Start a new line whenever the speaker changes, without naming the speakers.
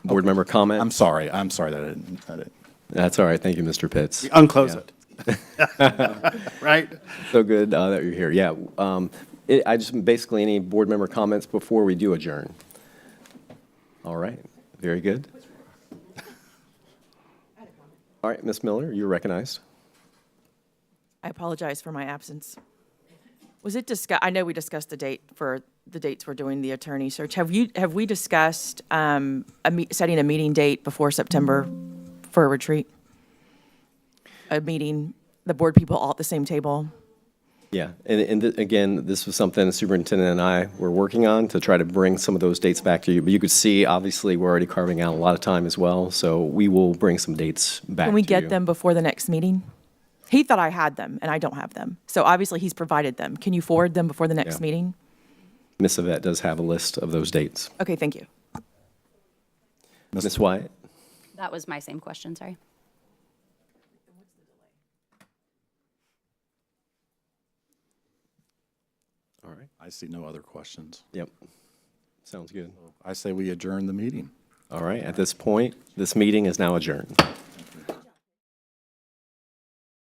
Board member comment?
I'm sorry, I'm sorry that I didn't, I didn't.
That's all right. Thank you, Mr. Pitts.
Unclose
Yeah.
it. Right?
So good uh, that you're here. Yeah. um, it- I just, basically, any board member comments before we do adjourn? All right. Very good. All right, Ms. Miller, you're recognized.
I apologize for my absence. Was it discuss, I know we discussed the date for, the dates we're doing the attorney search. Have you, have we discussed, um, a me, setting a meeting date before September for a retreat? A meeting, the board people all at the same table?
Yeah. And, and th- again, this was something the superintendent and I were working on to try to bring some of those dates back to you. But you could see, obviously, we're already carving out a lot of time as well. So we will bring some dates back
Can we
to you.
get them before the next meeting? He thought I had them and I don't have them. So obviously he's provided them. Can you forward them before the next
Yeah.
meeting?
Ms. Yvette does have a list of those dates.
Okay, thank you.
Ms. Wyatt?
That was my same question, sorry.
All right.
I see no other questions.
Yep. Sounds good.
I say we adjourn the meeting.
All right. At this point, this meeting is now adjourned.